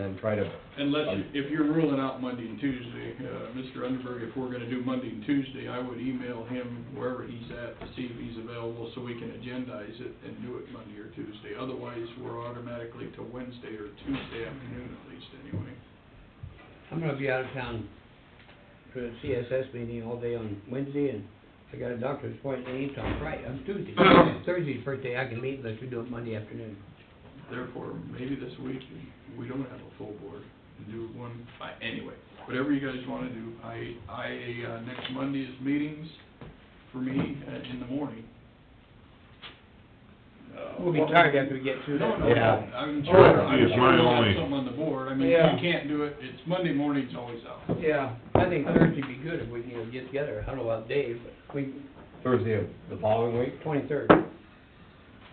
and try to, Unless, you- if you're ruling out Monday and Tuesday, uh, Mr. Underberg, if we're gonna do Monday and Tuesday, I would email him wherever he's at to see if he's available, so we can agendize it and do it Monday or Tuesday. Otherwise, we're automatically to Wednesday or Tuesday afternoon at least, anyway. I'm gonna be out of town for the CSS meeting all day on Wednesday, and I got a doctor's appointment eight on Friday, on Tuesday. Thursday's birthday, I can meet, unless you do it Monday afternoon. Therefore, maybe this week, we don't have a full board, and do one, I- anyway, whatever you guys wanna do. I, I, uh, next Monday is meetings for me uh, in the morning. Uh, We'll be tired after we get through No, that. no, Yeah. I'm sure, Oh, I'm it's my sure we'll only- have something on the board, I mean, Yeah. you can't do it, it's Monday morning's always out. Yeah, I think Thursday'd be good if we can you know, get together, I don't know about Dave, but we, Thursday of the following week, twenty-third. as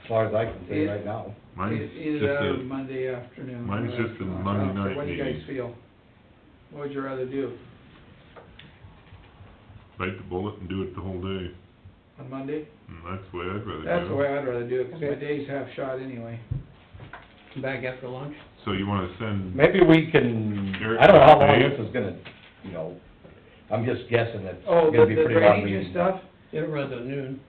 far as I can see right now. Mine's Either just that or a, Monday afternoon. mine's just a Uh, Monday night What do you guys meeting. feel? What would you rather do, bite the bullet and do it the whole day, on Monday? and that's the way I'd rather do it. That's the way I'd rather do it, 'cause my Okay. day's half shot anyway. Back after lunch. So you wanna send, Maybe we can, I don't know how long this is gonna, you know, I'm just guessing it's Oh, gonna the be the pretty long drainage and meeting. stuff? It'll run till noon.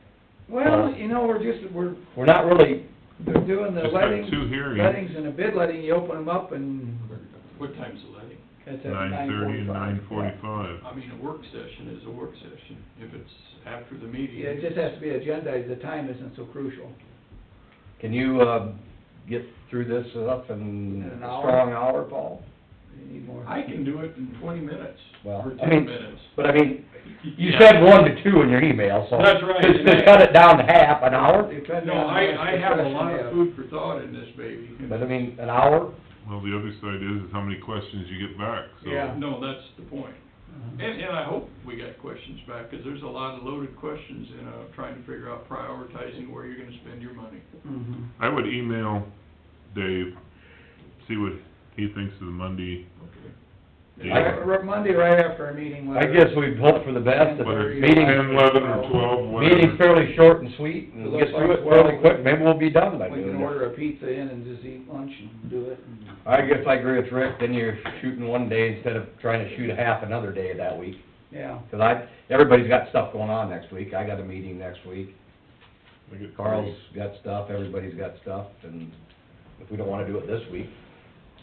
Well, you know, we're just, we're, We're not really, they're doing the Uh, just got lettings, two hearings, lettings and a bid letting, you open them up and What time's the letting? it's at nine nine thirty and nine forty-five. forty-five. I mean, a work session is a work session, if it's after the meeting. Yeah, it just has to be agendized, the time isn't so crucial. can you, uh, get through this up in In an a hour? strong hour, Paul? You need more. I can do it in twenty minutes, Well, or I ten mean, minutes. but I mean, you Yeah. said one to two in your email, so. That's right, Just, and just I- cut it down to half, an hour, Depending No, on how much I, I have a discussion lot you of have. food for thought in this baby. but I mean, an hour, Well, the other side is, is how many questions you get back, so. Yeah. No, that's the point. And, and I hope we got questions back, 'cause there's a lot of loaded questions in, uh, trying to figure out prioritizing where you're gonna spend your money. Mhm. Mm-hmm. I would email Dave, see what he thinks of the Monday, Right- right- Monday right after our meeting. I whether- guess we'd hope for the best, and whether Whether it's you- meeting- ten, eleven, or twelve, meeting whatever. fairly short and sweet, and get through it fairly quick, maybe we'll be done by We noon. can order a pizza in and just eat lunch and do it. and- I guess I agree with Rick, then you're shooting one day instead of trying to shoot a half another day that week. Yeah, Cause I, everybody's got stuff going on next week, I got a meeting next week, I get Carl's got stuff, everybody's got stuff, and if we don't wanna do it this week,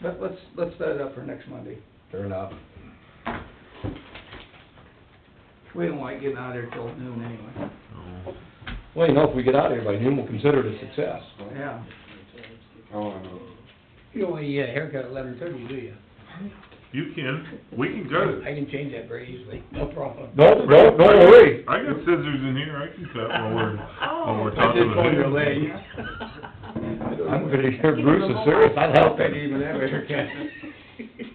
let, let's, let's set it up for next Monday. fair enough. We don't like getting out of there till noon anyway. so. Well, you know, if we get out of here by noon, we'll consider it a success. Yeah, You don't want to get a haircut at eleven thirty, do you? You can, we can cut it. I can change that very easily, no problem. No, no, don't worry. I got scissors in here, I can cut while we're, while we're I talking just about pulled it. your leg. I'm pretty sure Bruce is serious, I'd help him. Even that haircut.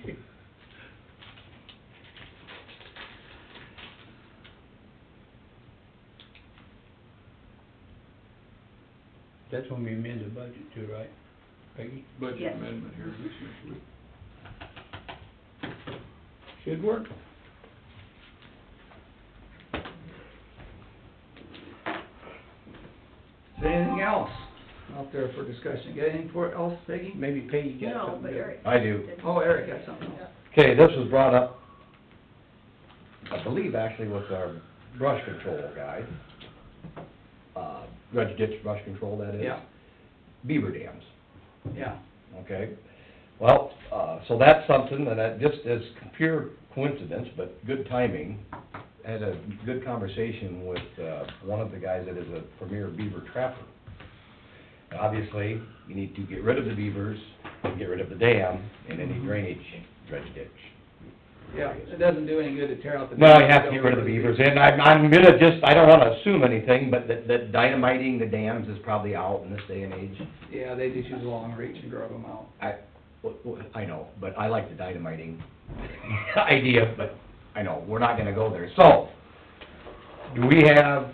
That's when we amend the budget too, right, Peggy? Budget Yes. amendment here this week. Should work. is there anything else out there for discussion? Got anything for else, Peggy? Maybe Peggy got No, something but there. Eric. I do. Oh, Eric got something else. Okay, this was brought up, I believe actually with our brush control guy. Uh, dredge ditch brush control, that is. Yeah, Beaver dams, yeah. okay? Well, uh, so that's something that I, just as pure coincidence, but good timing. Had a good conversation with, uh, one of the guys that is a premier beaver trapper. Obviously, you need to get rid of the beavers, get rid of the dam, and any drainage dredge ditch. Yeah, it doesn't do any good to tear out the. Well, you have to get rid of the beavers, and I'm, I'm gonna just, I don't wanna assume anything, but that, that dynamiting the dams is probably out in this day and age. Yeah, they just use a long reach and grub them out. I, w- w- I know, but I like the dynamiting idea, but I know, we're not gonna go there. So, do we have,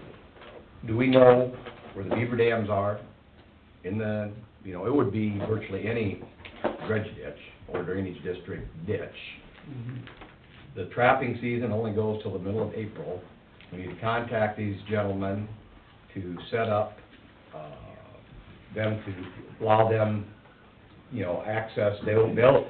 do we know where the beaver dams are in the, you know, it would be virtually any dredge ditch or drainage district ditch the trapping season only goes till the middle of April. We need to contact these gentlemen to set up, uh, them to allow them, you know, access, they'll, they'll,